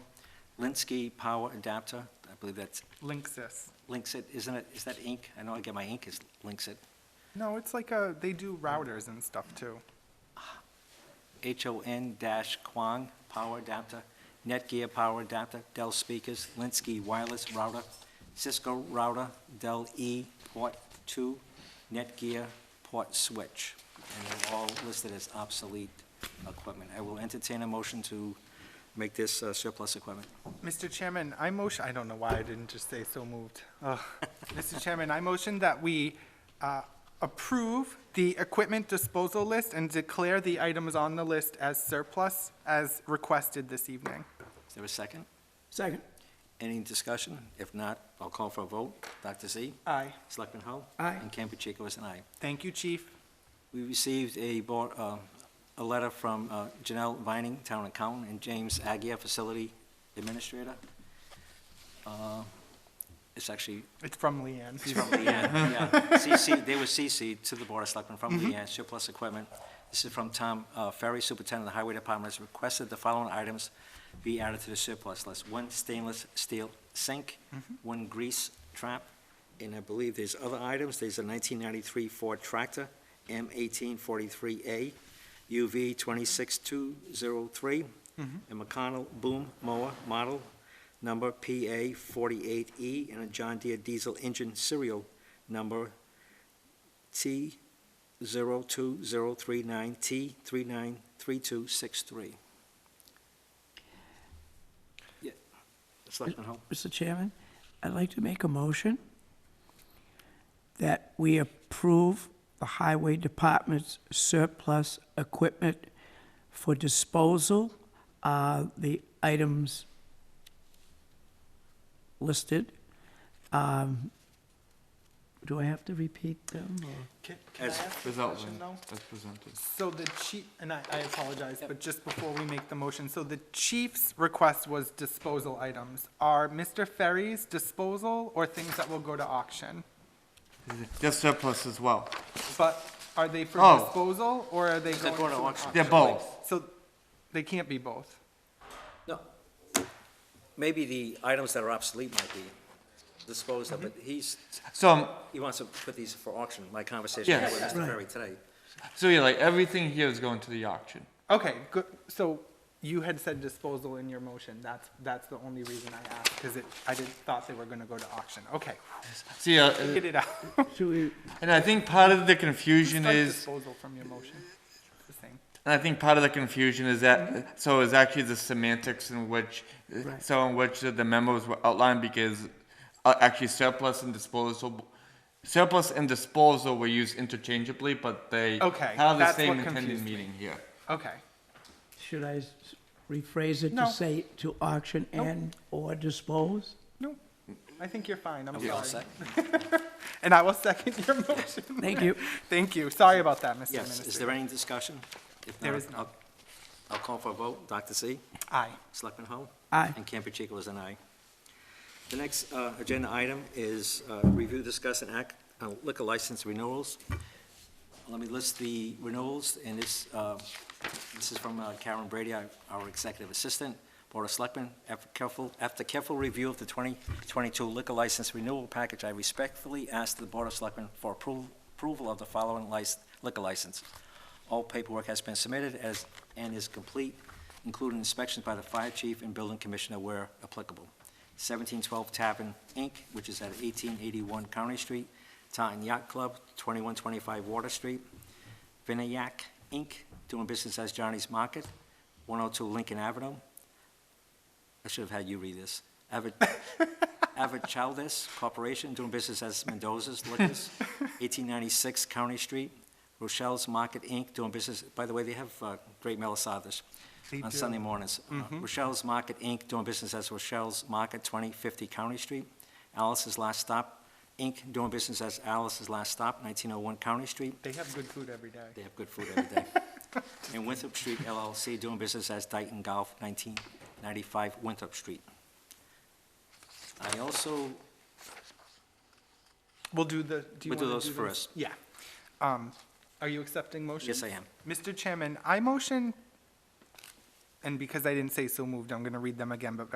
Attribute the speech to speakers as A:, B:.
A: Linsky Power Adapter, I believe that's
B: Linksys.
A: Linksit, isn't it, is that Inc.? I know I get my Inc. is Linksit.
B: No, it's like a, they do routers and stuff too.
A: H-O-N dash Quang Power Adapter, Netgear Power Adapter, Dell Speakers, Linsky Wireless Router, Cisco Router, Dell E Port Two, Netgear Port Switch. And they're all listed as obsolete equipment. I will entertain a motion to make this uh, surplus equipment.
B: Mr. Chairman, I motion, I don't know why I didn't just say so moved. Ugh. Mr. Chairman, I motion that we uh, approve the equipment disposal list and declare the items on the list as surplus as requested this evening.
A: Is there a second?
C: Second.
A: Any discussion? If not, I'll call for a vote. Dr. Z?
B: Aye.
A: Selectman Hull?
C: Aye.
A: And Campuchico is an aye.
B: Thank you, Chief.
A: We received a, bo- uh, a letter from uh, Janelle Vining, Town Accountant, and James Agia, Facility Administrator. Uh, It's actually,
B: It's from Leanne.
A: it's from Leanne, yeah. Mm-hmm. CC, they were CC to the Board of Selectmen from Leanne, surplus equipment. This is from Tom uh, Ferry, Superintendent of the Highway Department, has requested the following items be added to the surplus list. One stainless steel sink, one grease trap, and I believe there's other items. There's a 1993 Ford tractor, M1843A, UV 26203, a McConnell boom mower model number PA48E, E and a John Deere diesel engine serial number T02039T393263. Yeah, Selectman Hull?
C: Mr. Chairman, I'd like to make a motion that we approve the Highway Department's surplus equipment for disposal, uh, the items listed. Um, Do I have to repeat them, or?
B: Can can I
A: As-
B: ask a
D: Without
B: question,
D: limit,
B: though?
D: as presented.
B: So the chief, and I, I apologize, but just before we make the motion, so the chief's request was disposal items. Are Mr. Ferry's disposal or things that will go to auction?
D: They're surplus as well.
B: But are they for
D: Oh.
B: disposal or are they
A: They're
B: going to
A: going to
B: an
A: auction.
B: auction?
D: They're both.
B: So they can't be both.
A: No. Maybe the items that are obsolete might be disposed of, but he's,
D: So, um,
A: he wants to put these for auction, my conversation
D: Yes.
A: with Mr. Ferry today.
D: so yeah, like everything here is going to the auction.
B: Okay, good. So you had said disposal in your motion. That's, that's the only reason I asked, because it, I did, thought they were going to go to auction. Okay,
D: See, uh,
B: get it out.
C: Should we,
D: and I think part of the confusion
B: Strike
D: is,
B: Disposal from your motion. It's the same.
D: and I think part of the confusion is that, so it's actually the semantics in which, so in which the memos were outlined because uh, actually surplus and disposal, surplus and disposal were used interchangeably, but they
B: Okay,
D: have the
B: that's what
D: same intended
B: confused me.
D: meaning here.
B: Okay.
C: should I s- rephrase it
B: No.
C: to say to auction and/or dispose?
B: No, I think you're fine. I'm
A: All
B: sorry.
A: set?
B: And I will second your motion.
C: Thank you.
B: Thank you. Sorry about that, Mr.
A: Yes, is there
B: Minister.
A: any discussion? If
B: There is
A: I'll-
B: none.
A: I'll call for a vote. Dr. Z?
B: Aye.
A: Selectman Hull?
C: Aye.
A: And Campuchico is an aye. The next uh, agenda item is uh, review, discuss, and act on liquor license renewals. Let me list the renewals, and this, uh, this is from uh, Karen Brady, our our executive assistant, Board of Selectmen. After careful, after careful review of the 2022 liquor license renewal package, I respectfully ask the Board of Selectmen for approval approval of the following lic- liquor license. All paperwork has been submitted as, and is complete, including inspections by the fire chief and building commissioner where applicable. 1712 Tavern, Inc., which is at 1881 County Street, Taunton Yacht Club, 2125 Water Street, Vinayak, Inc., doing business as Johnny's Market, 102 Lincoln Avenue. I should have had you read this. Avid Avid Childes Corporation, doing business as Mendoza's Liquors, 1896 County Street, Rochelle's Market, Inc., doing business, by the way, they have uh, great melisadas
B: They
A: on
B: do.
A: Sunday mornings. Uh, Rochelle's Market, Inc., doing business as Rochelle's Market, 2050 County Street, Alice's Last Stop, Inc., doing business as Alice's Last Stop, 1901 County Street,
B: They have good food every day.
A: they have good food every day. And Winthrop Street LLC, doing business as Dayton Golf, 1995 Winthrop Street. I also
B: We'll do the, do
A: We'll
B: you want
A: do
B: to do
A: those
B: them?
A: first.
B: Yeah. Um, Are you accepting motion?
A: Yes, I am.
B: Mr. Chairman, I motion, and because I didn't say so moved, I'm going to read them again, but